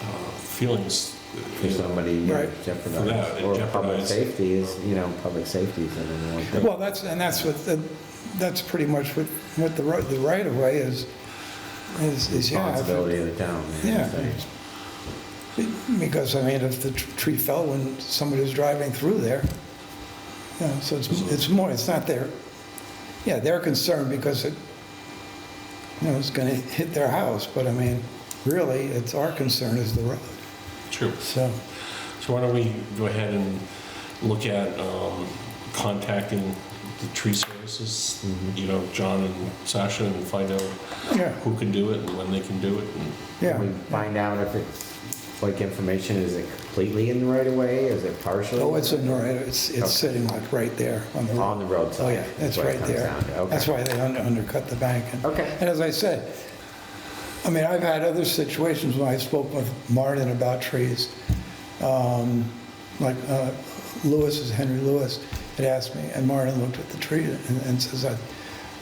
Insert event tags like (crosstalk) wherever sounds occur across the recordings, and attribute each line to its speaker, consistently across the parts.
Speaker 1: uh, feelings
Speaker 2: for somebody you know,
Speaker 3: Right.
Speaker 1: For
Speaker 2: jeopardized.
Speaker 1: that, it
Speaker 2: Or public
Speaker 1: jeopardized-
Speaker 2: safety is, you know, public safety is the number one thing.
Speaker 3: Well, that's, and that's what, the- that's pretty much what, what the right, the right of way is, is, is, yeah. if it-
Speaker 2: Responsibility of the town. you know what I'm
Speaker 3: Yeah.
Speaker 2: saying?
Speaker 3: Because, I mean, if the tr- tree fell when somebody was driving through there, you know, so it's, it's more, it's not their, yeah, they're concerned because it, you know, it's gonna hit their house, but I mean, really, it's our concern is the road,
Speaker 1: True.
Speaker 3: so.
Speaker 1: So why don't we go ahead and look at um, contacting the tree services, you know, John and Sasha, and find out
Speaker 3: Yeah.
Speaker 1: who can do it and when they can do it. and-
Speaker 3: Yeah,
Speaker 2: We find out if it's, like, information, is it completely in the right of way, is it partially?
Speaker 3: oh, it's in the right, it's, it's sitting like right there on the road.
Speaker 2: On the roadside.
Speaker 3: Oh, yeah, that's
Speaker 2: is what it
Speaker 3: right
Speaker 2: comes
Speaker 3: there.
Speaker 2: down to, okay.
Speaker 3: That's why they un- undercut the bank. And-
Speaker 2: Okay.
Speaker 3: And as I said, I mean, I've had other situations when I spoke with Martin about trees. Um, Like uh, Lewis, is Henry Lewis, had asked me, and Martin looked at the tree and and says, "I-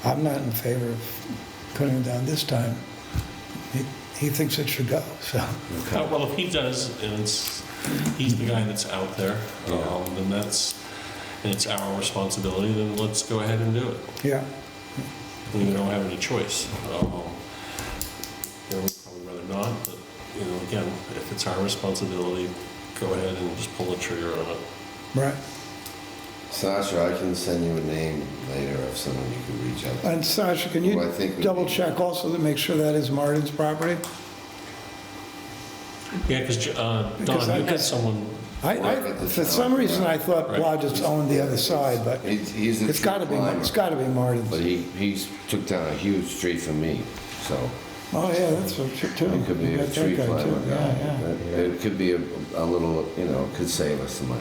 Speaker 3: I'm not in favor of cutting it down this time. He- He thinks it should go, (laughs) so,
Speaker 1: Uh, Well, if he does, and it's, he's the guy that's out there, um, then that's, and it's our responsibility, then let's go ahead and do it.
Speaker 3: yeah.
Speaker 1: We don't have any choice. Um, You know, we'd probably rather not, but, you know, again, if it's our responsibility, go ahead and just pull the trigger on it.
Speaker 3: Right.
Speaker 4: Sasha, I can send you a name later of someone you can reach out to.
Speaker 3: And Sasha, can you
Speaker 4: Well, I think we-
Speaker 3: double check also to make sure that is Martin's property?
Speaker 1: Yeah, because,
Speaker 3: Because
Speaker 1: Don,
Speaker 3: I-
Speaker 1: you got someone,
Speaker 3: I, I, for some reason, I thought Blodgett's owned the other side, but
Speaker 4: He's- he's a
Speaker 3: it's gotta be,
Speaker 4: tree climber.
Speaker 3: it's gotta be
Speaker 4: But
Speaker 3: Martin's.
Speaker 4: he, he's took down a huge tree for me, so
Speaker 3: Oh, yeah, that's a true, too.
Speaker 4: it could be
Speaker 3: You
Speaker 4: a
Speaker 3: got that
Speaker 4: tree
Speaker 3: guy, too.
Speaker 4: climber
Speaker 3: Yeah,
Speaker 4: guy. It- It could be a, a little, you know, could save us some money.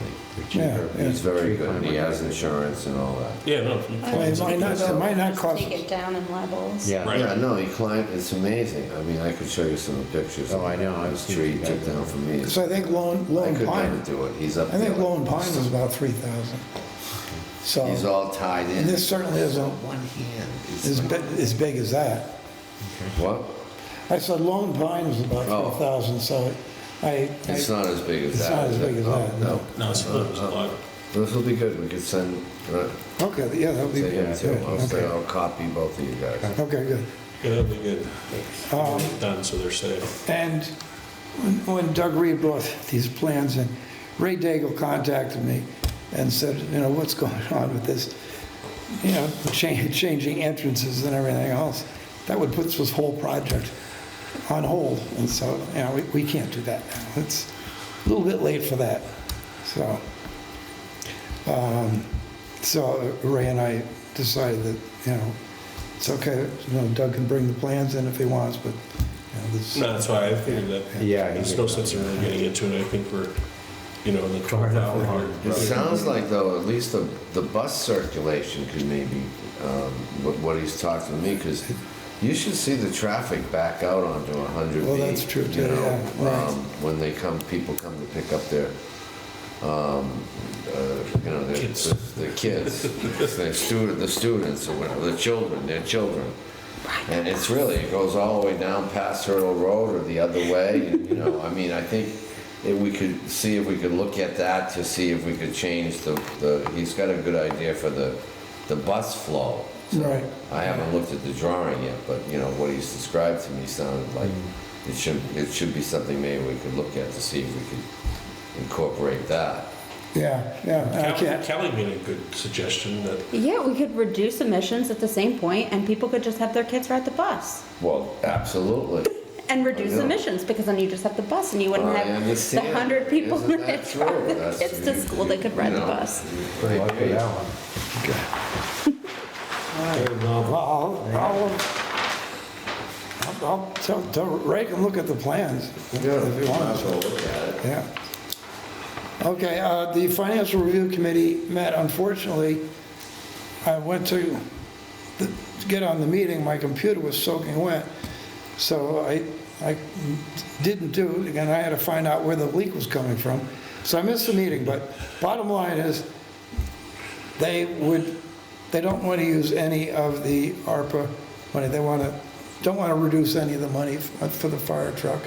Speaker 3: Yeah, yeah.
Speaker 4: He's very
Speaker 2: Tree
Speaker 4: good, and he
Speaker 2: climber.
Speaker 4: has insurance and all that.
Speaker 1: yeah, no. if you
Speaker 3: Well,
Speaker 1: close
Speaker 3: It
Speaker 1: it,
Speaker 3: might not, it might not
Speaker 5: Just
Speaker 3: cost,
Speaker 5: Take it down in levels.
Speaker 2: Yeah,
Speaker 1: Right.
Speaker 4: Yeah, no, he climbed, it's amazing. I mean, I could show you some pictures.
Speaker 2: Oh, I know, I've
Speaker 4: This
Speaker 2: seen
Speaker 4: tree he
Speaker 2: that.
Speaker 4: took down for me.
Speaker 3: so I think Lone,
Speaker 4: I
Speaker 3: Lone
Speaker 4: could never
Speaker 3: Pine,
Speaker 4: do it, he's up
Speaker 3: I
Speaker 4: there.
Speaker 3: think Lone Pine was about three thousand.
Speaker 4: He's
Speaker 3: So,
Speaker 4: all tied in.
Speaker 3: and this certainly isn't
Speaker 4: One hand. It's
Speaker 3: as,
Speaker 4: like-
Speaker 3: bi- as big as that.
Speaker 4: What?
Speaker 3: I said Lone Pine was about
Speaker 4: Oh.
Speaker 3: three thousand, so I,
Speaker 4: It's
Speaker 3: I,
Speaker 4: not as big as
Speaker 3: It's
Speaker 4: that.
Speaker 3: not as
Speaker 4: is it?
Speaker 3: big as that, no.
Speaker 1: No, it's, it's a lot.
Speaker 4: This will be good, we could send, uh,
Speaker 3: okay, yeah, that would be,
Speaker 4: to him too.
Speaker 3: good,
Speaker 4: I'll send,
Speaker 3: okay,
Speaker 4: I'll copy both of you guys.
Speaker 3: okay, good.
Speaker 1: Yeah, that'd be good.
Speaker 3: Um,
Speaker 1: Done, so they're safe.
Speaker 3: And when- when Doug Reed brought these plans in, Ray Daigle contacted me and said, you know, what's going on with this? You know, cha- (laughs) changing entrances and everything else. That would put this whole project on hold. And so, you know, we- we can't do that now. It's a little bit late for that. So, um, so Ray and I decided that, you know, it's okay, you know, Doug can bring the plans in if he wants, but, you know, this.
Speaker 1: No, that's why I figured that,
Speaker 2: yeah. he
Speaker 1: there's
Speaker 2: did.
Speaker 1: no sense in really getting into it, I think we're, you know, in the twelve hour.
Speaker 4: It sounds like though, at least the, the bus circulation could maybe, um, what, what he's talking to me, because you should see the traffic back out onto a hundred
Speaker 3: Well, that's true, too, yeah, right.
Speaker 4: um, When they come, people come to pick up their, um, uh, you know, their,
Speaker 1: Kids.
Speaker 4: their kids, their student, the students or whatever, the children, their children. And it's really, it goes all the way down past Hurdle Road or the other way, and, you know, I mean, I think if we could, see if we could look at that to see if we could change the, the, he's got a good idea for the, the bus flow. So
Speaker 3: Right.
Speaker 4: I haven't looked at the drawing yet, but, you know, what he's described to me sounded like it should, it should be something maybe we could look at to see if we could incorporate that.
Speaker 3: Yeah, yeah, I
Speaker 1: Kelly
Speaker 3: can't,
Speaker 1: Kelly made a good suggestion that
Speaker 5: Yeah, we could reduce emissions at the same point and people could just have their kids ride the bus
Speaker 4: Well, absolutely.
Speaker 5: and reduce
Speaker 4: I know.
Speaker 5: emissions because then you just have the bus and you wouldn't
Speaker 4: I
Speaker 5: have the
Speaker 4: understand.
Speaker 5: hundred people
Speaker 4: Isn't
Speaker 5: that
Speaker 4: that true?
Speaker 5: (laughs) drive the
Speaker 4: That's-
Speaker 5: kids to
Speaker 4: you-
Speaker 5: school that could
Speaker 4: you
Speaker 5: ride the
Speaker 4: know.
Speaker 5: bus.
Speaker 2: Good luck with that one.
Speaker 3: I'll, I'll, I'll- I'll tell, tell Ray can look at the plans if
Speaker 4: Yeah,
Speaker 3: you
Speaker 4: might
Speaker 3: want,
Speaker 4: as well look at it.
Speaker 3: yeah. Okay, uh, the Financial Review Committee met, unfortunately, I went to the- to get on the meeting, my computer was soaking wet, so I, I didn't do it, again, I had to find out where the leak was coming from, so I missed the meeting, but bottom line is, they would, they don't want to use any of the ARPA money, they want to, don't want to reduce any of the money f- for the fire truck.